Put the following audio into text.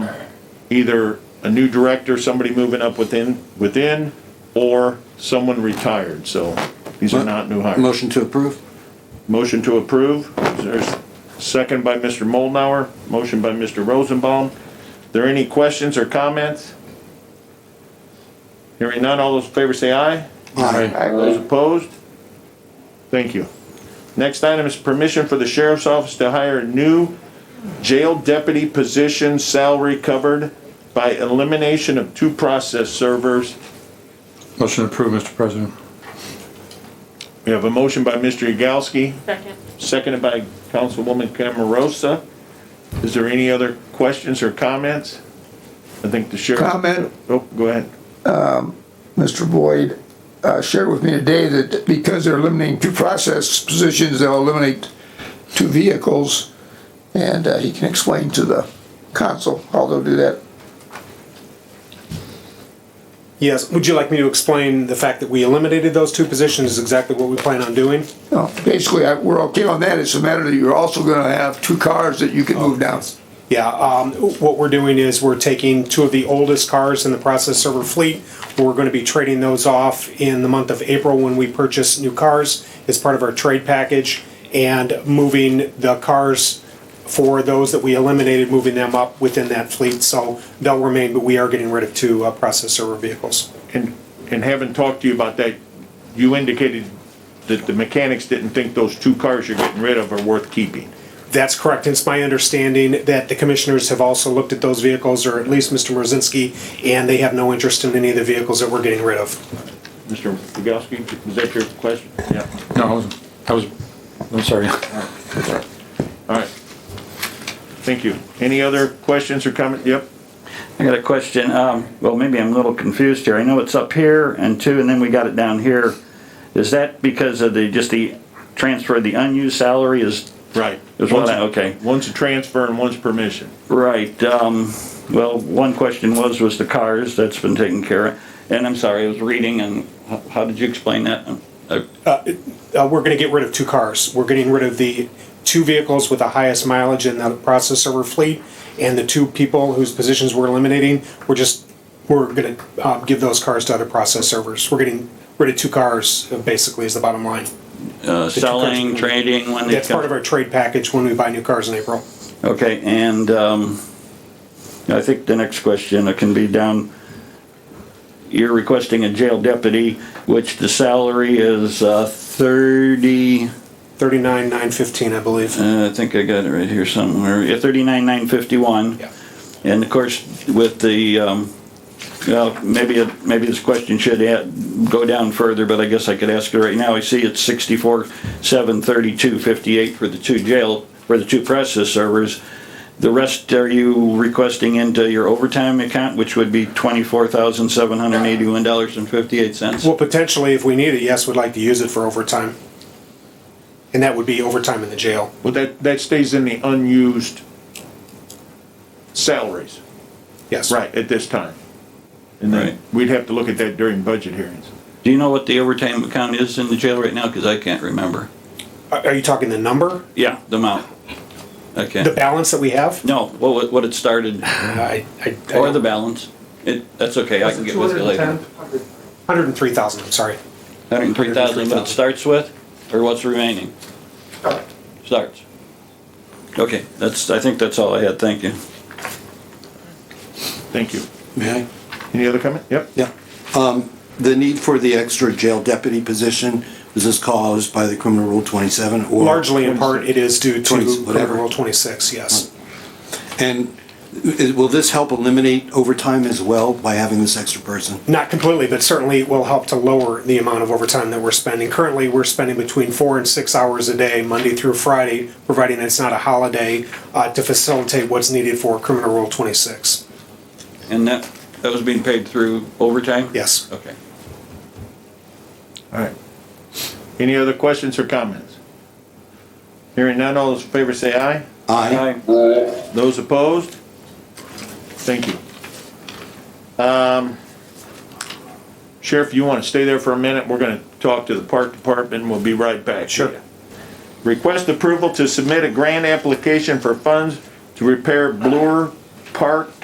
either a new director, somebody moving up within, within, or someone retired, so these are not new hires. Motion to approve? Motion to approve, there's second by Mr. Moldenauer, motion by Mr. Rosenbaum. There any questions or comments? Hearing none, all those in favor say aye. Aye. Those opposed? Thank you. Next item is permission for the sheriff's office to hire a new jail deputy position salary covered by elimination of two process servers. Motion approved, Mr. President. We have a motion by Mr. Yagowski, Second. seconded by Councilwoman Camerosa. Is there any other questions or comments? I think the sheriff. Comment. Oh, go ahead. Mr. Boyd uh, shared with me today that because they're eliminating two process positions, they'll eliminate two vehicles, and uh, he can explain to the council how they'll do that. Yes, would you like me to explain the fact that we eliminated those two positions is exactly what we plan on doing? No, Basically, I- we're okay on that, it's a matter that you're also gonna have two cars that you can move down. Yeah, um, what we're doing is we're taking two of the oldest cars in the process server fleet. We're gonna be trading those off in the month of April when we purchase new cars as part of our trade package and moving the cars for those that we eliminated, moving them up within that fleet. So they'll remain, but we are getting rid of two uh, process server vehicles. And, and having talked to you about that, you indicated that the mechanics didn't think those two cars you're getting rid of are worth keeping. That's correct. It's my understanding that the commissioners have also looked at those vehicles, or at least Mr. Mrozinski, and they have no interest in any of the vehicles that we're getting rid of. Mr. Yagowski, was that your question? Yeah. No, I was, I was, I'm sorry. All right. Thank you. Any other questions or comment? Yep. I got a question. Um, well, maybe I'm a little confused here. I know it's up here and two, and then we got it down here. Is that because of the, just the transfer, of the unused salary is, Right. There's one, okay. One's a transfer and one's permission. right, um, well, one question was, was the cars, that's been taken care of. And I'm sorry, I was reading and how, how did you explain that? Uh, Uh, we're going to get rid of two cars. We're getting rid of the two vehicles with the highest mileage in the process server fleet, and the two people whose positions we're eliminating, we're just, we're going to uh, give those cars to other process servers. We're getting rid of two cars, uh, basically, is the bottom line. Uh, selling, cars- trading, when they. That's part of our trade package when we buy new cars in April. Okay, and um, I think the next question uh, can be down, you're requesting a jail deputy, which the salary is uh, 30, Thirty-nine, nine fifteen, I believe. uh, I think I got it right here somewhere, yeah, 39,951. Yeah. And of course, with the, um, well, maybe, it- maybe this question should add- go down further, but I guess I could ask it right now. I see it's 64, 732, 58 for the two jail, for the two process servers. The rest are you requesting into your overtime account, which would be $24,781.58? Well, potentially, if we need it, yes, we'd like to use it for overtime. And that would be overtime in the jail. Well, that, that stays in the unused salaries. Yes. Right, at this time. And Right. then we'd have to look at that during budget hearings. Do you know what the overtime account is in the jail right now? Because I can't remember. Are are you talking the number, Yeah, the amount. the Okay. balance that we have? No, what, what it started. I, I, Mm-hmm. Or the balance. It, that's okay, I can get with you later. Hundred and three thousand, I'm sorry. Hundred and three thousand, what it 103,000. starts with, or what's remaining? Starts. Okay, that's, I think that's all I had, thank you. Thank you. May I? Any other comment? Yep. Yeah. Um, The need for the extra jail deputy position, was this caused by the criminal rule 27? or- Largely in part, it is due to 20, whatever. Rule twenty-six, Hmm. yes. And i- will this help eliminate overtime as well by having this extra person? Not completely, but certainly it will help to lower the amount of overtime that we're spending. Currently, we're spending between four and six hours a day, Monday through Friday, providing it's not a holiday, uh, to facilitate what's needed for criminal rule twenty-six. And that, that was being paid through overtime? Yes. Okay. All right. Any other questions or comments? Hearing none, all those in favor say aye. Aye. Aye. Those opposed? Thank you. Um, Sheriff, you want to stay there for a minute? We're going to talk to the park department. We'll be right back. Sure. Request approval to submit a grant application for funds to repair Bloor Park